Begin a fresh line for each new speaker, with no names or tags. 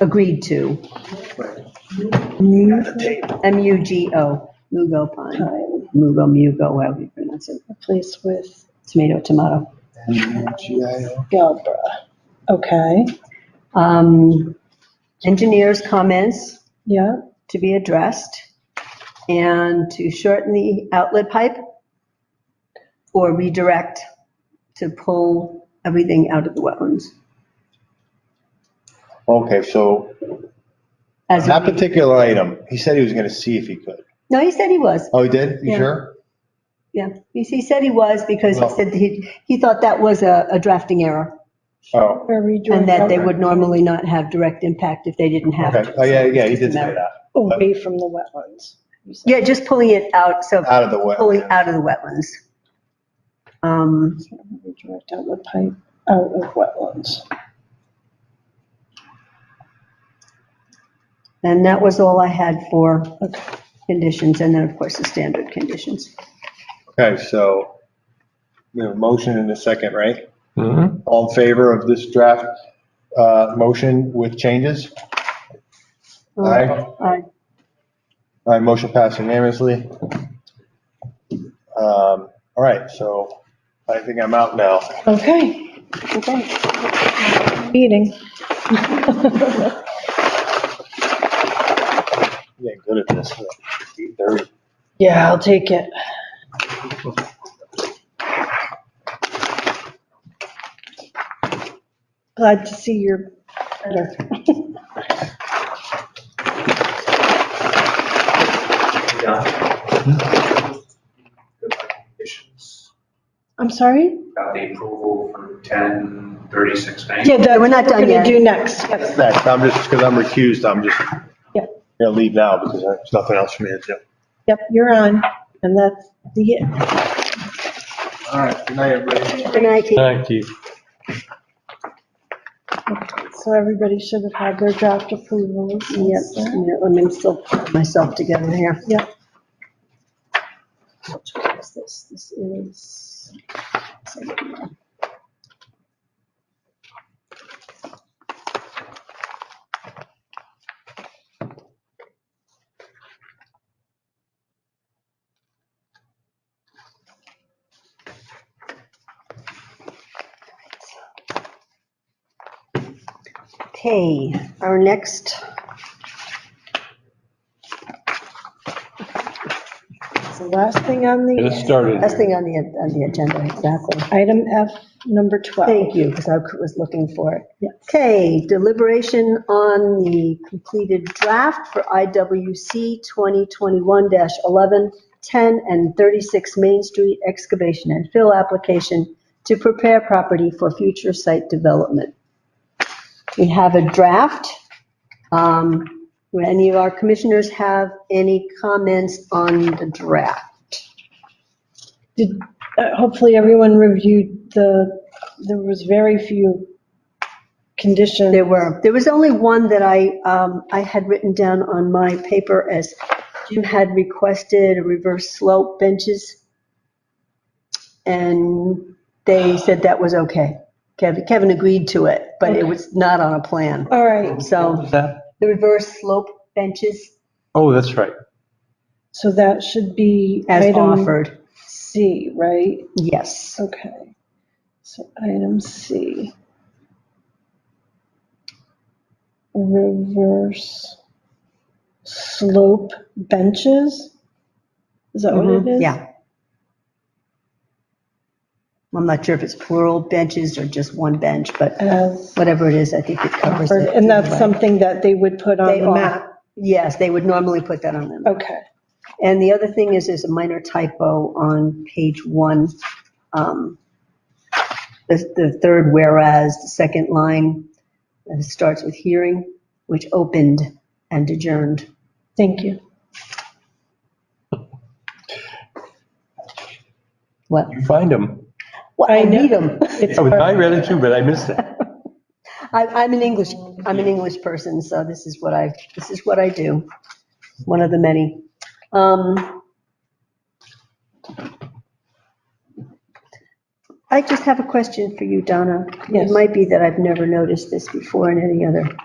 agreed to.
the tape.
M-U-G-O, Mugo Pine, Mugo, Mugo, however you pronounce it.
Place with
Tomato, tomato.
M-U-G-I-O.
Galbra. Okay,
Um, Engineers' comments
yeah,
to be addressed and to shorten the outlet pipe or redirect to pull everything out of the wetlands.
Okay, so
As,
that particular item, he said he was gonna see if he could.
no, he said he was.
Oh, he did? You
Yeah.
sure?
Yeah, he he said he was because he
Well-
said he, he thought that was a a drafting error
Oh,
or redirect.
and that they
Okay.
would normally not have direct impact if they didn't have
okay.
to.
Oh, yeah, yeah, he
It's
did
just a
say
matter-
that.
Away from the wetlands. you said.
Yeah, just pulling it out, so
Out of the way.
pulling out of the wetlands. Um,
Redirect outlet pipe out of wetlands.
And that was all I had for conditions, and then, of course, the standard conditions.
Okay, so we have a motion and a second, right? All in favor of this draft, uh, motion with changes? Aye. All
Aye.
right, motion passed unanimously. Um, all right, so I think I'm out now.
Okay, okay. Meeting.
Yeah, good at this. Eight thirty.
Yeah, I'll take it. Glad to see you're better. I'm sorry?
Got the approval for ten thirty-six ninety.
Yeah, that,
We're not done
We're
yet.
gonna do next. Yep.
Next, I'm just, because I'm recused, I'm just
Yeah.
gonna leave now because there's nothing else for me to do.
Yep, you're on, and that's the it.
All right, good night, everybody.
Good night, Keith.
Thank you.
So everybody should have had their draft approvals.
Yep, just a minute, let me still put myself together here.
Yep. Which one is This This is.
Okay, our next.
It's the last thing on
Get it
the,
started.
Last thing on the, on the agenda, exactly.
item F, number 12.
Thank you, because I was looking for it.
Yes.
Okay, deliberation on the completed draft for IWC 2021-11, 10 and 36 Main Street excavation and fill application to prepare property for future site development. We have a draft. Um, Do any of our commissioners have any comments on the draft?
Did, uh, hopefully everyone reviewed the, there was very few conditions.
There were, there was only one that I, um, I had written down on my paper as Jim had requested a reverse slope benches. And they said that was okay. Kevin, Kevin agreed to it, but it was not on a plan.
All right,
So
Is that-
the reverse slope benches
Oh, that's right.
so that should be
as
item
offered,
C, right?
yes.
Okay, so item C. Reverse slope benches? Is that what it is?
Mm-hmm. Yeah. I'm not sure if it's plural benches or just one bench, but
As
whatever it is, I think it covers
offered,
it.
and that's
anyway.
something that they would put on
They
the
are-
map?
Yes, they would normally put that on them.
Okay,
And the other thing is, there's a minor typo on page one. um, The, the third whereas, the second line, and it starts with hearing, which opened and adjourned.
thank you.
What?
You find them.
Well, I
I know.
need them.
It's
I
perfect.
read it too, but I missed it.
I, I'm an English, I'm an English person, so this is what I, this is what I do. One of the many. Um, I just have a question for you, Donna. It
Yes.
might be that I've never noticed this before in any other